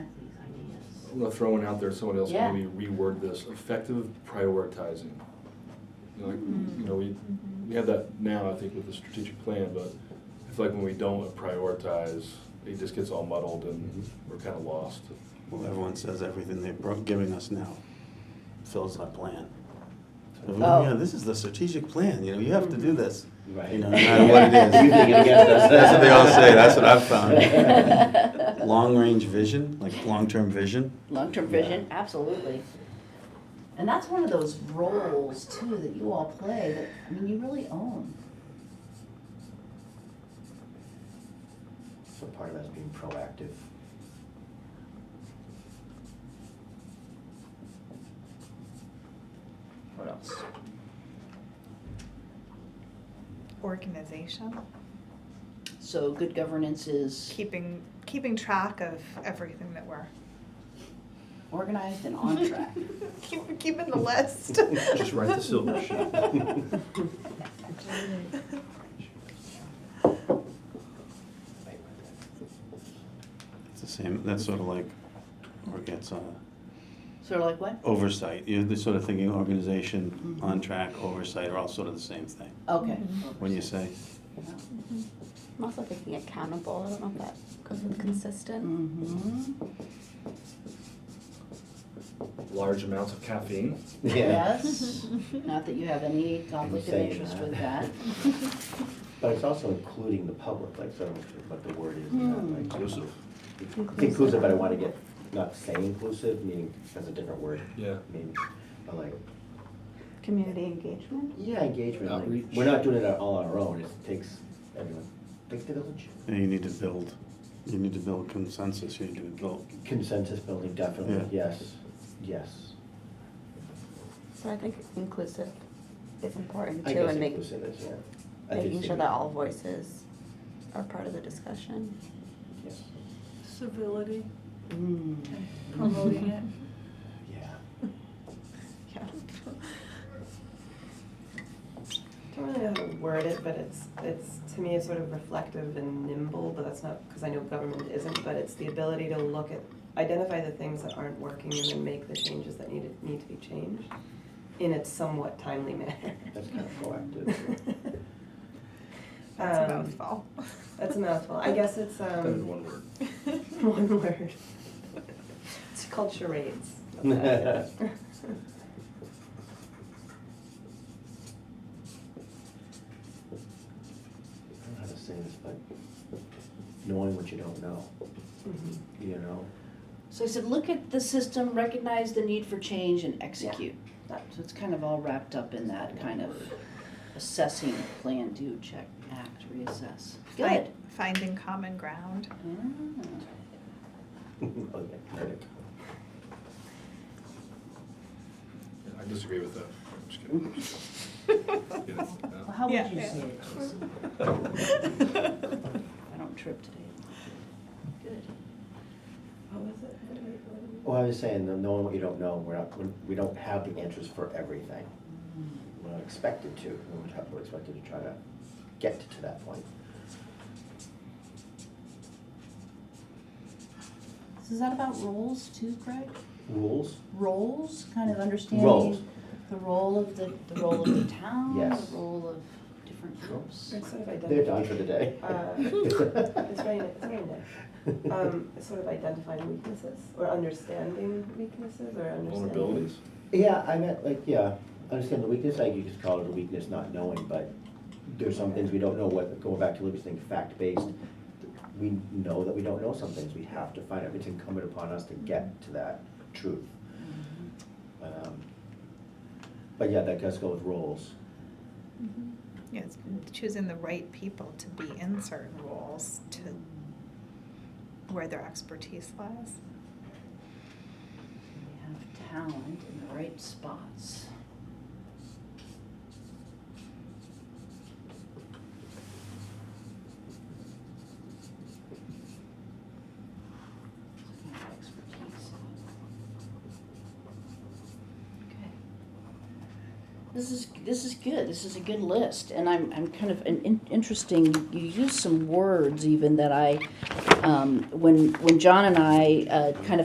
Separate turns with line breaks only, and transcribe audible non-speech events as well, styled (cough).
I'm gonna throw one out there, someone else
Yeah.
can maybe reword this, effective prioritizing. You know, like, you know, we, we have that now, I think, with the strategic plan, but I feel like when we don't prioritize, it just gets all muddled and we're kinda lost.
Well, everyone says everything they're bro- giving us now fills our plan. So,
Oh.
Yeah, this is the strategic plan, you know, you have to do this.
Right.
You
(laughs)
know, no matter what it is.
You think it gets us.
That's what they all say, that's what I've found. Long-range vision, like long-term vision.
Long-term vision, absolutely. And that's one of those roles too that you all play that, I mean, you really own.
So part of that is being proactive.
What else?
organization,
So good governance is
keeping keeping track of everything that we're
organized and on (laughs) track.
keep, keeping the list.
(laughs) Just write the silver
It's the same, that's sort of like, or it's uh,
Sort of like what?
oversight, you're the sort of thinking organization,
Mm-hmm.
Mhm.
on track, oversight are all sort of the same thing.
Okay.
When you say,
I'm also thinking accountable. I don't know if that goes with consistent.
Mm-hmm.
Large amounts of caffeine.
(laughs) Yes, not that you have any conflict of
saying
interest
that.
with (laughs) that.
But it's also including the public, like, so, what the word is, not
Hmm.
like.
Inclusive.
It's Inclusive, but I wanna get, not say inclusive, meaning, that's a different word.
Yeah.
Maybe, but like,
Community engagement.
yeah, engagement,
Outreach.
like, we're not doing it all on our own, it takes everyone, takes the village.
you know, you need to build, you need to build consensus, you need to build,
Consensus building, definitely, yes, yes.
So I think inclusive is important
I
too,
guess
and make,
inclusive is, yeah. I think
making
so.
sure that all voices are part of the discussion.
Yes,
civility,
Mm.
(laughs)
promoting it.
yeah.
Yeah.
I don't really know how to word it, but it's, it's, to me, it's sort of reflective and nimble, but that's not, because I know government isn't, but it's the ability to look at, identify the things that aren't working and then make the changes that need, need to be changed in a somewhat timely (laughs) manner.
That's kind of
(laughs)
proactive.
That's a
Um,
mouthful.
That's a mouthful. I guess it's,
That is
um,
one word.
one word. It's called charades. That's what that is.
I don't know how to say this, but knowing what you don't know,
Mhm.
you know?
So I said, look at the system, recognize the need for change and execute. That, so it's kind of all wrapped up in that kind of assessing, plan, do, check, act, reassess. Good.
Find- Finding
(laughs)
common ground. (laughs)
Yeah.
Oh, yeah, credit.
I disagree with that. I'm just kidding. Get it? No.
Well, how would
Yeah.
you
Yeah.
say it, Jason? I don't trip today. Good.
What was it? What do we- what do we-
Well, I was saying, the knowing what you don't know, we're not, we- we don't have the answers for everything. We're not expected to, we're not- we're expected to try to get to that point.
So is that about roles too, Craig?
Rules?
Roles, kind of understanding
Roles.
the role of the, the role of the town,
Yes.
the role of different groups.
It's sort of
They're done for the day.
Uh, It's very, it's very nice. (laughs) um, sort of identifying weaknesses or understanding weaknesses or understanding.
Vulnerabilities.
Yeah, I meant like, yeah, understand the weakness, like you just call it a weakness, not knowing, but there's some things we don't know, what, going back to Libby's thing, fact-based. We know that we don't know some things, we have to find out, it's incumbent upon us to get to that truth.
Mm-hmm.
Um, But yeah, that does go with roles.
Yeah, it's choosing the right people to be in certain roles to where their expertise lies.
We have talent in the right spots. Looking for expertise. Okay. This is, this is good, this is a good list, and I'm, I'm kind of, an in- interesting, you used some words even that I, um, when, when John and I, uh, kind of